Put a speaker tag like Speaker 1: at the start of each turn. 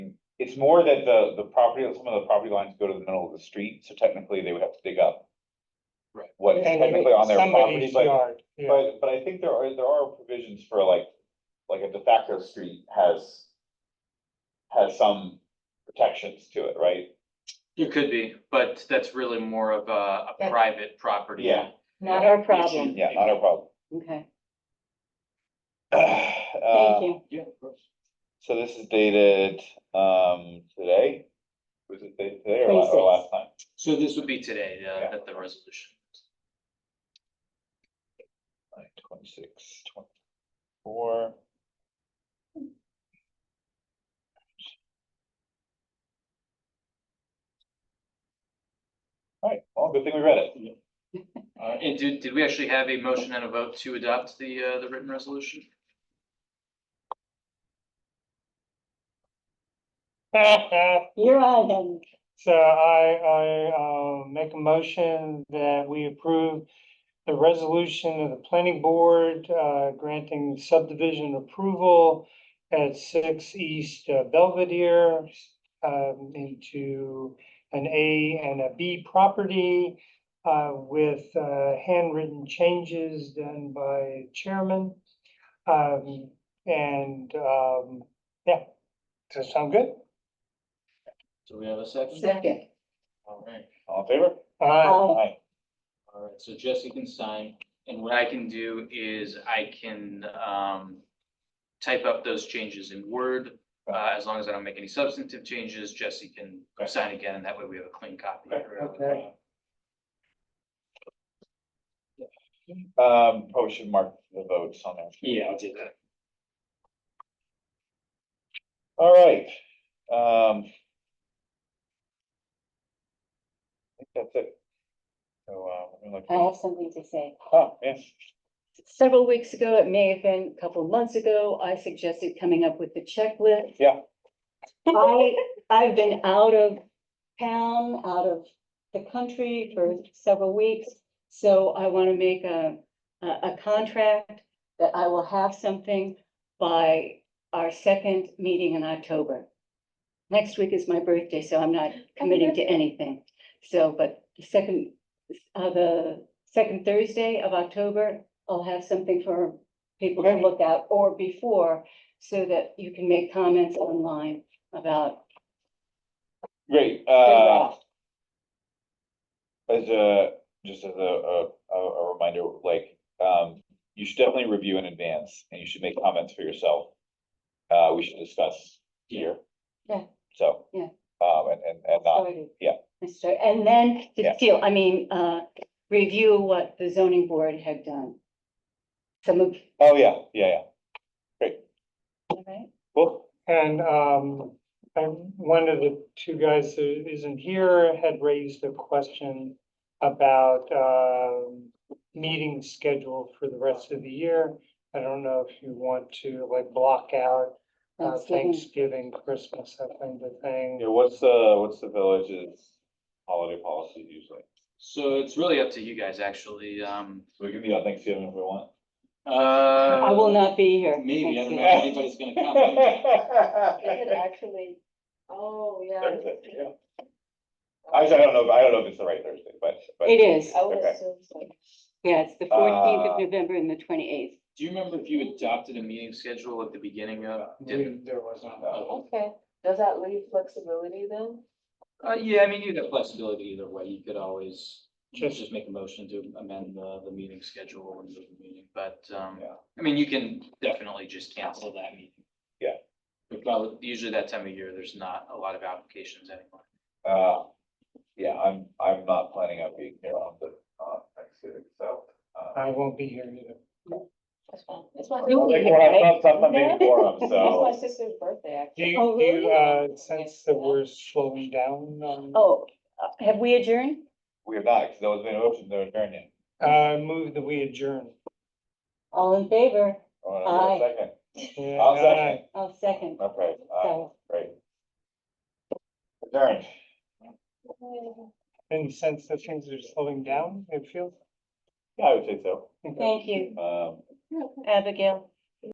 Speaker 1: it's more that the, the property, some of the property lines go to the middle of the street, so technically they would have to dig up.
Speaker 2: Right.
Speaker 1: What is technically on their property,
Speaker 3: Somebody's
Speaker 1: but,
Speaker 3: yard, yeah.
Speaker 1: but, but I think there are, there are provisions for like, like a de facto street has. Has some protections to it, right?
Speaker 2: It could be, but that's really more of a, a
Speaker 4: That's-
Speaker 2: private property.
Speaker 1: Yeah.
Speaker 4: Not our
Speaker 2: issue.
Speaker 4: problem.
Speaker 1: Yeah, not a problem.
Speaker 4: Okay,
Speaker 1: Uh,
Speaker 4: thank you.
Speaker 2: Yeah, of course.
Speaker 1: So this is dated, um, today? Was it dated today or la- or
Speaker 4: 26.
Speaker 1: last time?
Speaker 2: So this would be today, uh,
Speaker 1: Yeah.
Speaker 2: that the resolution.
Speaker 1: Like twenty-six, twenty-four. All right, well, good thing we read it.
Speaker 2: Uh, and did, did we actually have a motion and a vote to adopt the, uh, the written resolution?
Speaker 4: You're on then.
Speaker 3: So I, I, uh, make a motion that we approve the resolution of the planning board, uh, granting subdivision approval at six East uh, Belvedere, um, into an A and a B property, uh, with, uh, handwritten changes done by chairman. Um, and, um, yeah, does that sound good?
Speaker 2: Do we have a second?
Speaker 4: Second.
Speaker 2: All right,
Speaker 1: All in favor?
Speaker 3: All right.
Speaker 4: Aye.
Speaker 1: Aye.
Speaker 2: all right, so Jesse can sign, and what I can do is I can, um, type up those changes in Word. Uh, as long as I don't make any substantive changes, Jesse can
Speaker 1: Okay.
Speaker 2: sign again, and that way we have a clean copy.
Speaker 1: Okay,
Speaker 3: okay.
Speaker 1: Um, probably should mark the votes on there.
Speaker 2: Yeah, I'll do that.
Speaker 1: All right, um. I think that's it. So, uh, let me look.
Speaker 4: I have something to say.
Speaker 1: Oh, yes,
Speaker 4: Several weeks ago, it may have been a couple of months ago, I suggested coming up with the checklist.
Speaker 1: Yeah.
Speaker 4: I, I've been out of town, out of the country for several weeks. So I want to make a, a, a contract that I will have something by our second meeting in October. Next week is my birthday, so I'm not committing to anything. So, but the second, uh, the second Thursday of October, I'll have something for people to look at or before, so that you can make comments online about.
Speaker 1: great, uh. As a, just as a, a, a- a reminder, like, um, you should definitely review in advance and you should make comments for yourself. Uh, we should discuss here.
Speaker 4: Yeah.
Speaker 1: So.
Speaker 4: Yeah.
Speaker 1: Um, and, and, and not,
Speaker 4: started.
Speaker 1: yeah.
Speaker 4: I start- And then
Speaker 1: Yeah.
Speaker 4: to feel, I mean, uh, review what the zoning board had done. Some of,
Speaker 1: oh, yeah, yeah, yeah,
Speaker 4: right?
Speaker 1: cool,
Speaker 3: And um, and one of the two guys who isn't here had raised a question about um meeting schedule for the rest of the year. I don't know if you want to like block out uh,
Speaker 4: Thanksgiving.
Speaker 3: Thanksgiving, Christmas, that kind of
Speaker 1: yeah,
Speaker 3: thing.
Speaker 1: what's, uh, what's the village's holiday policy usually?
Speaker 2: So it's really up to you guys, actually, um.
Speaker 1: So we can meet on Thanksgiving if we want.
Speaker 2: Uh,
Speaker 4: I will not be here.
Speaker 2: Maybe, I don't know
Speaker 4: Thanksgiving.
Speaker 2: if anybody's gonna come.
Speaker 4: Is it actually, oh, yeah.
Speaker 1: Thursday, yeah. Actually, I don't know, if- I don't know if it's the right Thursday, but, but.
Speaker 4: It is.
Speaker 1: would Okay.
Speaker 4: Yeah, it's the fourteenth
Speaker 1: Uh,
Speaker 4: of November and the twenty-eighth.
Speaker 2: Do you remember if you adopted a meeting schedule at the beginning of?
Speaker 3: We- There was not.
Speaker 2: Uh,
Speaker 5: Okay, does that leave flexibility then?
Speaker 2: yeah, I mean, you'd have flexibility either way. You could always
Speaker 3: Just-
Speaker 2: just make a motion to amend the, the meeting schedule and the meeting, but, um,
Speaker 1: Yeah.
Speaker 2: I mean, you can definitely just cancel that meeting.
Speaker 1: Yeah.
Speaker 2: But probably, usually that time of year, there's not a lot of applications anymore.
Speaker 1: Uh, yeah, I'm, I'm not planning on being here on the, uh, Thanksgiving, so. uh,
Speaker 3: I won't be here either.
Speaker 5: That's fine. It's my,
Speaker 4: You'll be
Speaker 1: like,
Speaker 4: here,
Speaker 1: well, I'm
Speaker 4: right?
Speaker 1: not- I'm not making quorum,
Speaker 5: that's
Speaker 1: so,
Speaker 5: my sister's birthday,
Speaker 3: Do
Speaker 5: actually.
Speaker 3: you,
Speaker 4: Oh,
Speaker 3: do you
Speaker 5: really?
Speaker 3: uh sense that we're slowing down on?
Speaker 4: Oh, uh, have we adjourned?
Speaker 1: we are not, because there was an motion, there was turn yet.
Speaker 3: Uh, move that we adjourn.
Speaker 4: All in favor? Aye.
Speaker 1: Second,
Speaker 3: Yeah,
Speaker 1: I'll
Speaker 3: aye.
Speaker 1: second,
Speaker 4: I'll second.
Speaker 1: okay, aye,
Speaker 4: So,
Speaker 1: great. Adjourned.
Speaker 3: Any sense that things are slowing down, it feels?
Speaker 1: yeah, I would say so,
Speaker 4: Thank you,
Speaker 1: um,
Speaker 4: Abigail.